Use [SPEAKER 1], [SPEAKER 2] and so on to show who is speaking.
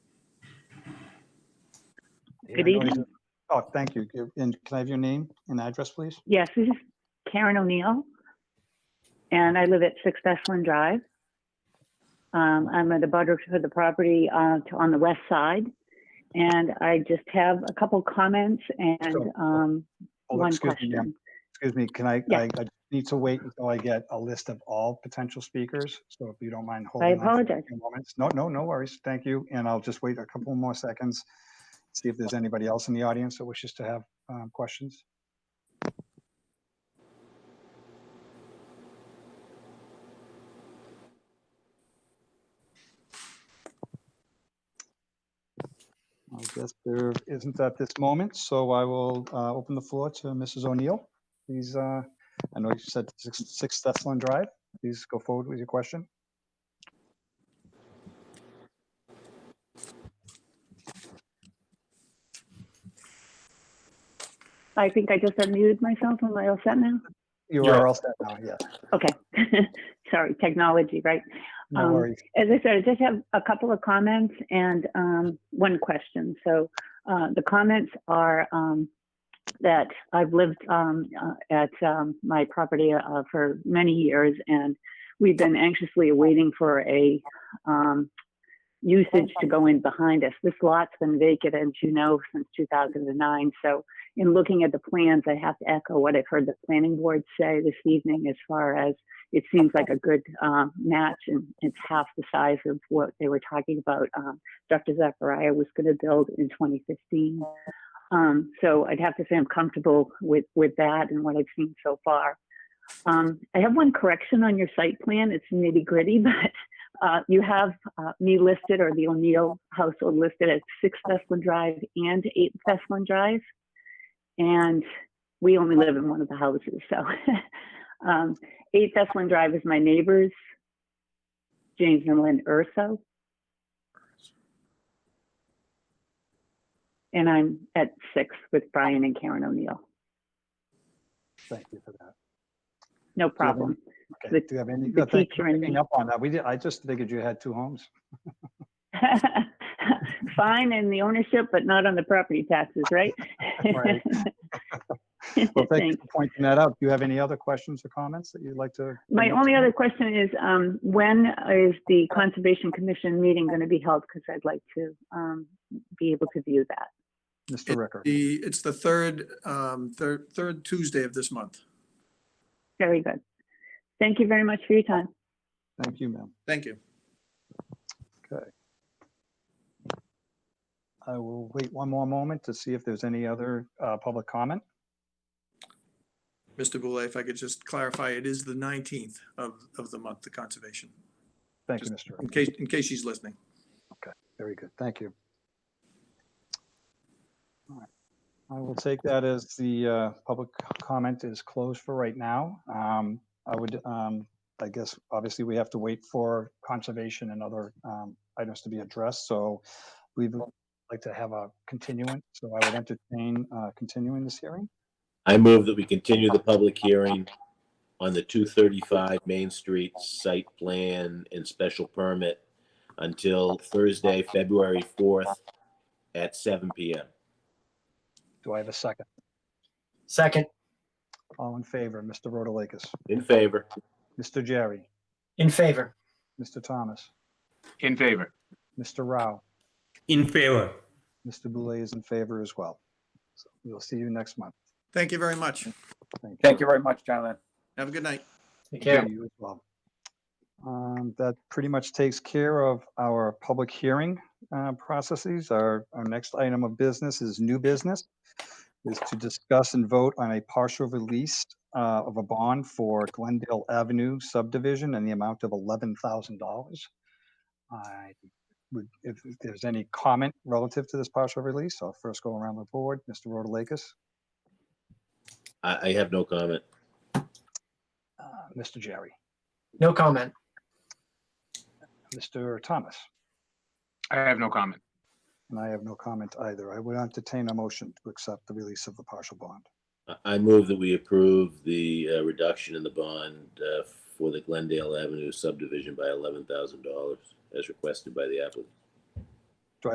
[SPEAKER 1] Good
[SPEAKER 2] Yeah, no,
[SPEAKER 1] evening.
[SPEAKER 2] Oh, thank you. Give- And can I have your name and address, please?
[SPEAKER 1] Yes, this is Karen O'Neill, and I live at Six Esplin Drive. Um, I'm at the butter for the property uh, to, on the west side, and I just have a couple comments and
[SPEAKER 2] Sure.
[SPEAKER 1] um,
[SPEAKER 2] Oh,
[SPEAKER 1] one
[SPEAKER 2] excuse me, ma'am.
[SPEAKER 1] question.
[SPEAKER 2] Excuse me, can I,
[SPEAKER 1] Yeah.
[SPEAKER 2] I I need to wait until I get a list of all potential speakers, so if you don't mind
[SPEAKER 1] I
[SPEAKER 2] holding on for a
[SPEAKER 1] apologize.
[SPEAKER 2] few moments. No, no, no worries. Thank you. And I'll just wait a couple more seconds, see if there's anybody else in the audience that wishes to have um, questions. I guess there isn't at this moment, so I will uh, open the floor to Mrs. O'Neill. Please, uh, I know you said six six Thessalon Drive. Please go forward with your question.
[SPEAKER 1] I think I just unmuted myself. Am I all set now?
[SPEAKER 2] You
[SPEAKER 3] Yeah.
[SPEAKER 2] are all set now, yes.
[SPEAKER 1] Okay. Sorry, technology, right?
[SPEAKER 2] No
[SPEAKER 1] Um,
[SPEAKER 2] worries.
[SPEAKER 1] as I said, I just have a couple of comments and um, one question. So uh, the comments are um, that I've lived um, uh, at um, my property uh, for many years, and we've been anxiously awaiting for a um, usage to go in behind us. This lot's been vacant, as you know, since 2009. So in looking at the plans, I have to echo what I've heard the planning board say this evening as far as it seems like a good um, match and it's half the size of what they were talking about um, dr zachariah was going to build in 2015 um, so i'd have to say i'm comfortable with with that and what i've seen so far um, i have one correction on your site plan it's nitty gritty but uh, you have uh, me listed or the o'neill household listed at 6 Thessalon drive and 8 Thessalon drive and we only live in one of the houses so um, 8 Thessalon Drive is my neighbors, James and Lynn Urso. And I'm at 6 with Brian and Karen O'Neill.
[SPEAKER 2] Thank you for that.
[SPEAKER 1] No problem.
[SPEAKER 2] Okay,
[SPEAKER 1] The-
[SPEAKER 2] do you have any,
[SPEAKER 1] The
[SPEAKER 2] no, thank you
[SPEAKER 1] teacher
[SPEAKER 2] for
[SPEAKER 1] and
[SPEAKER 2] picking
[SPEAKER 1] me.
[SPEAKER 2] up on that. We did, I just figured you had two homes.
[SPEAKER 1] Fine in the ownership, but not on the property taxes, right?
[SPEAKER 2] Right. Well, thank you for pointing that out. Do you have any other questions or comments that you'd like to?
[SPEAKER 1] My
[SPEAKER 2] bring up
[SPEAKER 1] only
[SPEAKER 2] tonight?
[SPEAKER 1] other question is, um, when is the Conservation Commission meeting going to be held? Because I'd like to, um, be able to view that.
[SPEAKER 2] Mr. Ricker,
[SPEAKER 3] The, it's the third, um, third, third Tuesday of this month.
[SPEAKER 1] Very good. Thank you very much for your time.
[SPEAKER 2] thank you, ma'am.
[SPEAKER 3] Thank you.
[SPEAKER 2] I will wait one more moment to see if there's any other uh, public comment.
[SPEAKER 3] Mr. Boulay, if I could just clarify, it is the 19th of, of the month, the conservation,
[SPEAKER 2] Thank you, Mr. Ricker.
[SPEAKER 3] in case, in case she's listening.
[SPEAKER 2] Very good, thank you. All right. I will take that as the uh, public comment is closed for right now. Um, I would, um, I guess, obviously, we have to wait for conservation and other um, items to be addressed, so we'd like to have a continuance, so I would entertain uh, continuing this hearing.
[SPEAKER 4] I move that we continue the public hearing on the 235 Main Street site plan and special permit until Thursday, February 4th at 7 PM.
[SPEAKER 2] Do I have a second?
[SPEAKER 5] Second,
[SPEAKER 2] All in favor, Mr. Rotalakis,
[SPEAKER 4] In favor?
[SPEAKER 2] Mr. Jerry,
[SPEAKER 5] in favor.
[SPEAKER 2] Mr. Thomas,
[SPEAKER 6] In favor.
[SPEAKER 2] Mr. Rao.
[SPEAKER 7] In favor.
[SPEAKER 2] Mr. Boulay is in favor as well. So We'll see you next month.
[SPEAKER 3] Thank you very much.
[SPEAKER 6] Thank you very much, gentlemen.
[SPEAKER 3] Have a good night.
[SPEAKER 5] Take
[SPEAKER 2] Yeah,
[SPEAKER 5] care.
[SPEAKER 2] you as well. Um, That pretty much takes care of our public hearing uh, processes. Our, our next item of business is new business, is to discuss and vote on a partial release uh, of a bond for Glendale Avenue subdivision and the amount of $11,000. I would, if if there's any comment relative to this partial release, I'll first go around the board. Mr. Rotalakis,
[SPEAKER 4] I, I have no comment.
[SPEAKER 2] uh, Mr. Jerry,
[SPEAKER 5] No comment.
[SPEAKER 2] Mr. Thomas.
[SPEAKER 6] I have no comment.
[SPEAKER 2] And I have no comment either. I would entertain a motion to accept the release of the partial bond.
[SPEAKER 4] I, I move that we approve the uh, reduction in the bond uh, for the Glendale Avenue subdivision by $11,000 as requested by the applicant.